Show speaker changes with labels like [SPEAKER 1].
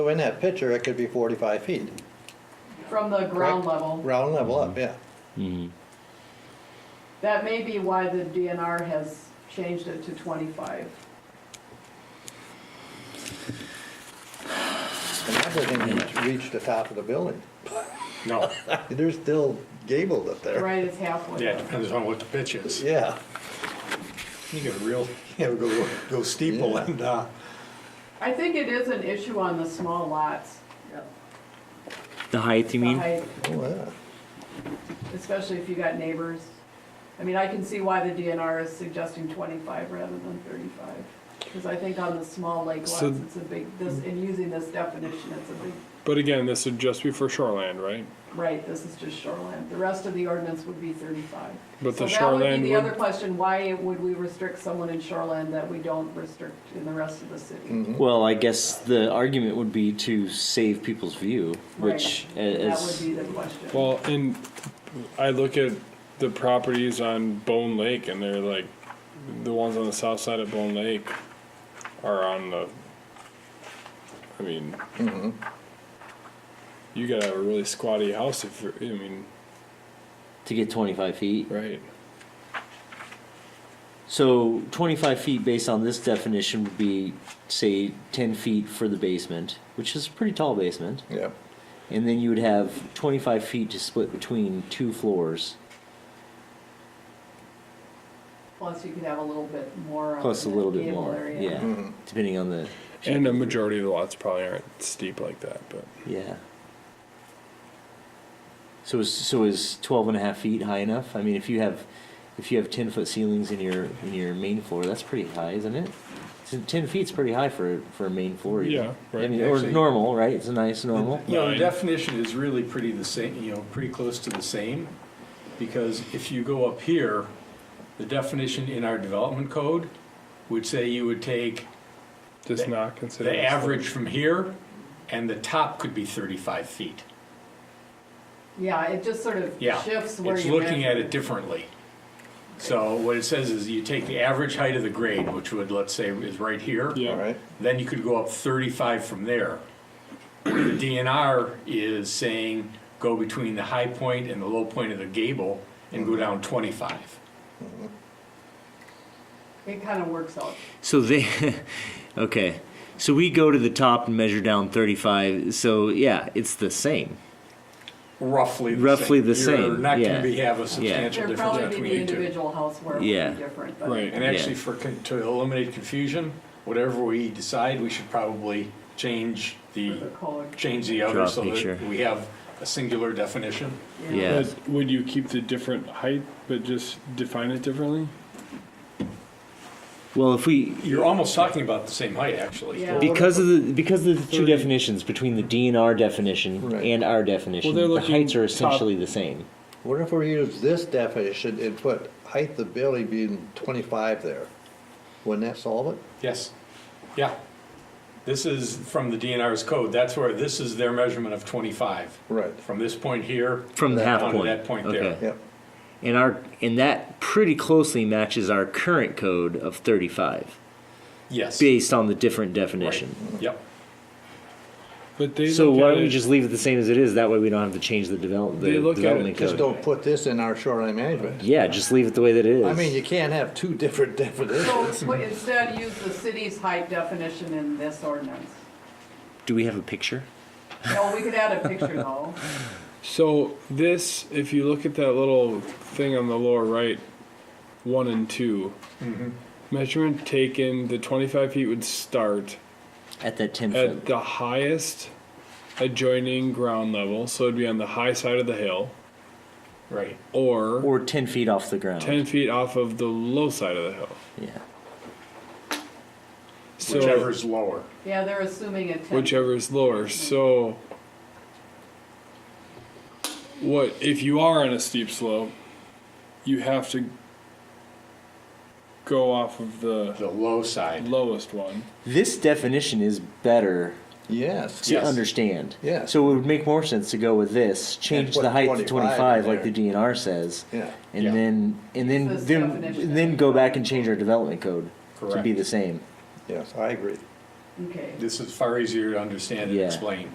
[SPEAKER 1] So in that picture, it could be forty-five feet,
[SPEAKER 2] from the ground
[SPEAKER 1] Correct.
[SPEAKER 2] level.
[SPEAKER 1] ground level up, yeah.
[SPEAKER 2] That may be why the DNR has changed it to twenty-five.
[SPEAKER 1] And that doesn't even reach the top of the building.
[SPEAKER 3] No,
[SPEAKER 1] There's still gabled up there.
[SPEAKER 2] Right, it's halfway.
[SPEAKER 3] yeah, it depends on what the pitch is.
[SPEAKER 1] Yeah,
[SPEAKER 3] You get real, you know, go, go steeple
[SPEAKER 1] Yeah.
[SPEAKER 3] and, uh,
[SPEAKER 2] I think it is an issue on the small lots.
[SPEAKER 4] The height, you
[SPEAKER 2] the
[SPEAKER 4] mean?
[SPEAKER 2] height,
[SPEAKER 1] oh, yeah.
[SPEAKER 2] Especially if you got neighbors. I mean, I can see why the DNR is suggesting twenty-five rather than thirty-five. Because I think on the small lake lots,
[SPEAKER 5] So-
[SPEAKER 2] it's a big, this, in using this definition, it's a big,
[SPEAKER 5] But again, this would just be for shoreland, right?
[SPEAKER 2] right, this is just shoreland. The rest of the ordinance would be thirty-five.
[SPEAKER 5] But
[SPEAKER 2] So
[SPEAKER 5] the
[SPEAKER 2] that would
[SPEAKER 5] shoreland
[SPEAKER 2] be the other
[SPEAKER 5] would,
[SPEAKER 2] question, why would we restrict someone in shoreland that we don't restrict in the rest of the city?
[SPEAKER 4] Well, I guess the argument would be to save people's view, which
[SPEAKER 2] Right. That would
[SPEAKER 4] is
[SPEAKER 2] be the question.
[SPEAKER 5] well, and I look at the properties on Bone Lake and they're like, the ones on the south side of Bone Lake are on the, I mean,
[SPEAKER 4] Mm-hmm.
[SPEAKER 5] you gotta have a really squatty house if, you're- I mean,
[SPEAKER 4] to get 25 feet.
[SPEAKER 5] right.
[SPEAKER 4] So 25 feet, based on this definition, would be say 10 feet for the basement, which is a pretty tall basement,
[SPEAKER 1] Yeah.
[SPEAKER 4] and then you would have 25 feet to split between two floors,
[SPEAKER 2] Plus, you could have a little bit more. of
[SPEAKER 4] plus a
[SPEAKER 2] an
[SPEAKER 4] little bit
[SPEAKER 2] gable
[SPEAKER 4] more,
[SPEAKER 2] area.
[SPEAKER 4] yeah, depending on the
[SPEAKER 5] And a majority of the lots probably aren't steep like that, but
[SPEAKER 4] yeah. So is so is 12 and a half feet high enough? I mean, if you have if you have 10 foot ceilings in your in your main floor, that's pretty high, isn't it? So 10 feet's pretty high for for a main floor. even.
[SPEAKER 5] Yeah, right.
[SPEAKER 4] I mean, or
[SPEAKER 3] Actually-
[SPEAKER 4] normal, right? It's a nice normal.
[SPEAKER 3] you know, the
[SPEAKER 5] Nine.
[SPEAKER 3] definition is really pretty the same, you know, pretty close to the same. Because if you go up here, the definition in our development code would say you would take
[SPEAKER 5] just not considered.
[SPEAKER 3] the average from here and the top could be thirty-five feet.
[SPEAKER 2] Yeah, it just sort of
[SPEAKER 3] Yeah,
[SPEAKER 2] shifts where
[SPEAKER 3] it's
[SPEAKER 2] you
[SPEAKER 3] looking at
[SPEAKER 2] measure.
[SPEAKER 3] it differently. So what it says is you take the average height of the grade, which would, let's say, is right here.
[SPEAKER 5] Yeah.
[SPEAKER 1] All right,
[SPEAKER 3] Then you could go up 35 from there. The DNR is saying go between the high point and the low point of the gable and go down 25.
[SPEAKER 2] It kind of works out.
[SPEAKER 4] So they, okay. So we go to the top and measure down 35. So yeah, it's the same.
[SPEAKER 3] Roughly the same.
[SPEAKER 4] Roughly the
[SPEAKER 3] You're
[SPEAKER 4] same,
[SPEAKER 3] not
[SPEAKER 4] yeah.
[SPEAKER 3] going to have a
[SPEAKER 2] there
[SPEAKER 3] substantial
[SPEAKER 2] would
[SPEAKER 3] difference
[SPEAKER 2] probably be the
[SPEAKER 3] between the two.
[SPEAKER 2] individual house where it would
[SPEAKER 4] Yeah.
[SPEAKER 2] be different, but.
[SPEAKER 5] Right.
[SPEAKER 3] And actually,
[SPEAKER 4] Yeah.
[SPEAKER 3] for, con- to eliminate confusion, whatever we decide, we should probably change the,
[SPEAKER 2] The code.
[SPEAKER 3] change the
[SPEAKER 4] Draw
[SPEAKER 3] other
[SPEAKER 4] a
[SPEAKER 3] so
[SPEAKER 4] picture.
[SPEAKER 3] that we have a singular definition.
[SPEAKER 4] Yeah.
[SPEAKER 5] But would you keep the different height, but just define it differently?
[SPEAKER 4] Well, if we
[SPEAKER 3] You're almost talking about the same height, actually.
[SPEAKER 2] Yeah.
[SPEAKER 4] because of the because of the two
[SPEAKER 5] 30.
[SPEAKER 4] definitions between the DNR definition
[SPEAKER 1] Right.
[SPEAKER 4] and our definition,
[SPEAKER 5] Well, they're
[SPEAKER 4] the
[SPEAKER 5] looking
[SPEAKER 4] heights are
[SPEAKER 5] top-
[SPEAKER 4] essentially the same.
[SPEAKER 1] what if we use this definition and put height of building being twenty-five there? Wouldn't that solve it?
[SPEAKER 3] Yes, yeah. This is from the DNR's code, that's where, this is their measurement of 25.
[SPEAKER 1] Right.
[SPEAKER 3] From this point here.
[SPEAKER 4] From the half
[SPEAKER 3] down to
[SPEAKER 4] point.
[SPEAKER 3] that point
[SPEAKER 4] Okay.
[SPEAKER 3] there.
[SPEAKER 1] Yep,
[SPEAKER 4] And our and that pretty closely matches our current code of 35
[SPEAKER 3] Yes.
[SPEAKER 4] based on the different definition.
[SPEAKER 3] Yep.
[SPEAKER 5] But they
[SPEAKER 4] So
[SPEAKER 5] look
[SPEAKER 4] why
[SPEAKER 5] at
[SPEAKER 4] don't we
[SPEAKER 5] it-
[SPEAKER 4] just leave it the same as it is? That way we don't have to change the develop the
[SPEAKER 5] They look at it,
[SPEAKER 4] development
[SPEAKER 1] just
[SPEAKER 4] code.
[SPEAKER 1] don't put this in our shoreline management.
[SPEAKER 4] Yeah, just leave it the way that it is.
[SPEAKER 1] I mean, you can't have two different
[SPEAKER 2] So
[SPEAKER 1] definitions.
[SPEAKER 2] w- instead, use the city's height definition in this ordinance.
[SPEAKER 4] do we have a picture?
[SPEAKER 2] No, we could add a picture though.
[SPEAKER 5] So this, if you look at that little thing on the lower right, one and 2 measurement taken, the 25 feet would start
[SPEAKER 4] At that 10
[SPEAKER 5] at
[SPEAKER 4] foot.
[SPEAKER 5] the highest adjoining ground level, so it'd be on the high side of the hill,
[SPEAKER 3] Right.
[SPEAKER 5] or,
[SPEAKER 4] or 10 feet off the ground.
[SPEAKER 5] 10 feet off of the low side of the hill.
[SPEAKER 4] Yeah.
[SPEAKER 5] So
[SPEAKER 3] Whichever's lower.
[SPEAKER 2] Yeah, they're assuming a ten.
[SPEAKER 5] whichever is lower. So, what if you are on a steep slope? You have to go off of the
[SPEAKER 3] The low side.
[SPEAKER 5] lowest one.
[SPEAKER 4] This definition is better
[SPEAKER 1] Yes,
[SPEAKER 4] to
[SPEAKER 3] Yes.
[SPEAKER 4] understand.
[SPEAKER 1] Yeah.
[SPEAKER 4] So it would make more sense to go with this, change
[SPEAKER 1] put
[SPEAKER 4] the height to
[SPEAKER 1] 25
[SPEAKER 4] 25
[SPEAKER 1] in
[SPEAKER 4] like the
[SPEAKER 1] there.
[SPEAKER 4] DNR says,
[SPEAKER 1] yeah.
[SPEAKER 4] and
[SPEAKER 3] Yeah.
[SPEAKER 4] then and then
[SPEAKER 2] This
[SPEAKER 4] then,
[SPEAKER 2] definition.
[SPEAKER 4] and then go back and change our development code to be
[SPEAKER 3] Correct.
[SPEAKER 4] the same.
[SPEAKER 1] Yes, I agree.
[SPEAKER 2] okay.
[SPEAKER 3] This is far easier to understand and
[SPEAKER 4] Yeah.
[SPEAKER 3] explain.